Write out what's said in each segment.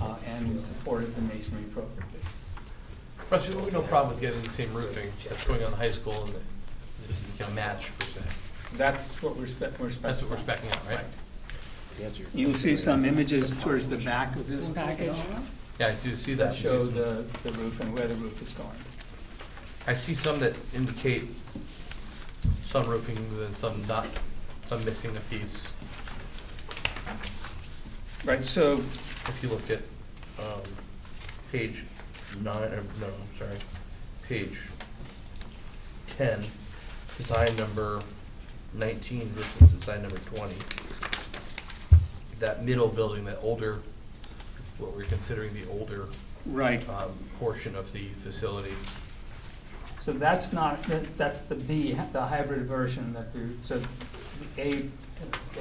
uh, and supported the masonry appropriately. Russ, you have no problem with getting the same roofing that's going on the high school and the, a match per se. That's what we're spec, we're specifying. That's what we're spec'ing out, right? You'll see some images towards the back of this package Yeah, I do see that that. show the, the roof and where the roof is going. I see some that indicate some roofing and some not, some missing a piece. Right, so If you look at, um, page nine, or no, I'm sorry, page ten, design number nineteen versus design number twenty. That middle building, that older, what we're considering the older, Right, um, portion of the facility. so that's not, that- that's the B, the hybrid version that the, so the A,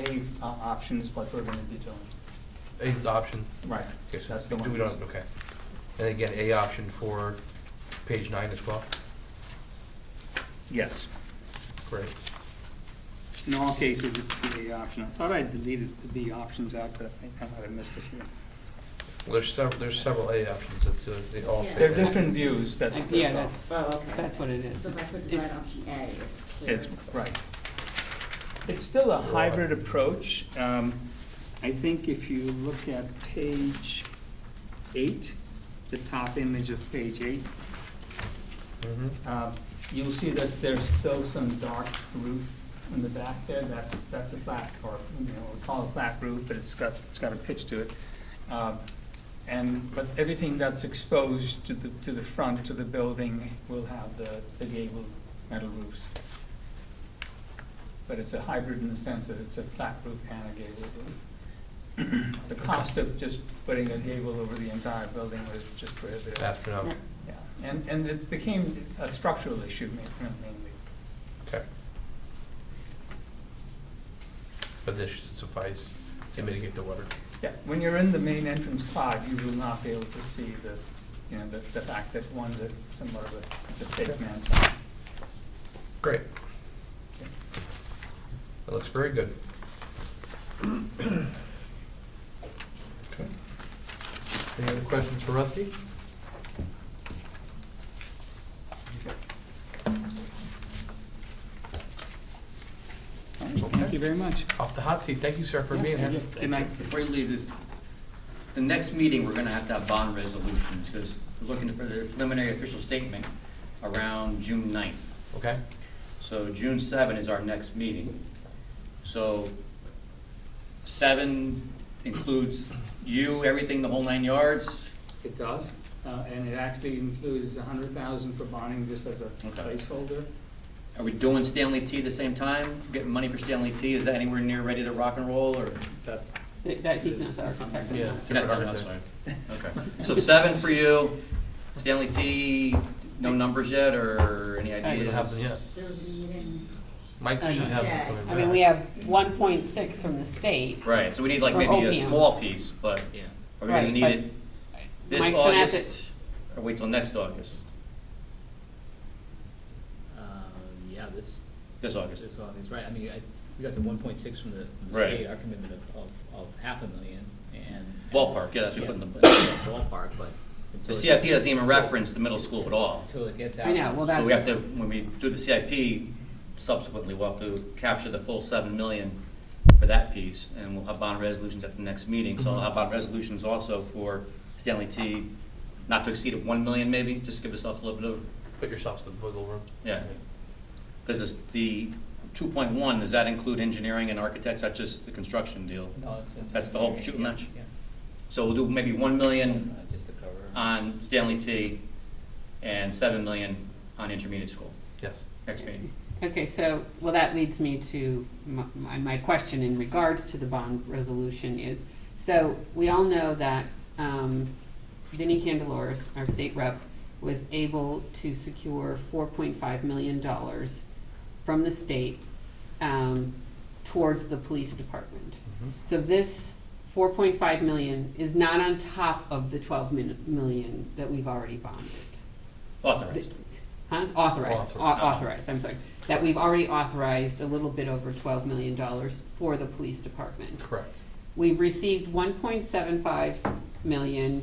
A uh, option is what we're gonna be doing. A is option, Right, Okay, so that's the do one. we don't, okay. And again, A option for page nine as well? Yes. Great. In all cases, it's the A option. I thought I deleted the B options out, but I think I might have missed a few. Well, there's several, there's several A options, it's, uh, they all say Yeah. They're that. different views, that's, I- Yeah, that's that's, Oh, okay. that's what it is. So if I put It's- design it's- option A, it's all. clear. It's, right. It's still a hybrid approach. Um, I think if you look at page eight, the top image of page eight, Mhm. uh, you'll see that there's still some dark roof in the back there. That's, that's a flat, or, you know, we call it flat roof, but it's got, it's got a pitch to it. Uh, And, but everything that's exposed to the, to the front, to the building, will have the, the gable metal roofs. But it's a hybrid in the sense that it's a flat roof and a gable roof. The cost of just putting a gable over the entire building was just prohibitive. Astronomical, Yeah, and, and it became a structural issue ma- mainly. okay. But this should suffice to mitigate the water. Yeah, when you're in the main entrance pod, you will not be able to see the, you know, the, the fact that one's a somewhat of a, it's a fake man's sign. Great. That looks very good. Okay. Any other questions for Rusty? All right, Thank you very much. Off the hot seat, thank you, sir, for being here. Good night. Before you leave this, the next meeting, we're gonna have to have bond resolutions, because we're looking for the preliminary official statement around June 9th. Okay, So June seven is our next meeting. So seven includes you, everything, the whole nine yards? It does, uh, and it actually includes a hundred thousand for bonding just as a Okay. placeholder. Are we doing Stanley T the same time? Getting money for Stanley T, is that anywhere near ready to rock and roll, or? That, it- That, he's not the architect. yeah. That's not, that's fine. Okay. So seven for you, Stanley T, no numbers yet, or any I- We ideas? don't have them yet. There was a meeting, Mike I should know. have them coming I mean, back. we have one point six from the state. Right, so we need like Or maybe a opium. small piece, but are we gonna Right, need but it this Mike's gonna have to- August? Or wait till next August? Um, yeah, this, This August. this August, right, I mean, I, we got the one point six from the, from the Right. state, our commitment of, of, of half a million, and. Ballpark, yeah, that's what we Yeah, put in the, Ballpark, but. the until it- CIP doesn't even reference the middle school at all. Until it gets out. I know, well, that. So we have to, when we do the CIP subsequently, we'll have to capture the full seven million for that piece, and we'll have bond resolutions at the next meeting. So I'll have bond resolutions also for Stanley T, not to exceed one million maybe, just give ourselves a little bit of, Put yourselves in the wiggle room. yeah. Because the two point one, does that include engineering and architects, that's just the construction deal? No, it's in- That's the whole shooting yeah, match? yeah. So we'll do maybe one million Uh, Just to cover. on Stanley T and seven million on intermediate school, Yes. next meeting. Okay, so, well, that leads me to my- my, my question in regards to the bond resolution is, so, we all know that, um, Vinnie Candelores, our state rep, was able to secure four point five million dollars from the state, um, towards the police department. So this four point five million is not on top of the twelve min- million that we've already bonded. Authorized. Huh? Authorized, au- Author- authorized, I'm sorry. That we've already authorized a little bit over twelve million dollars for the police department. Correct. We've received one point seven five million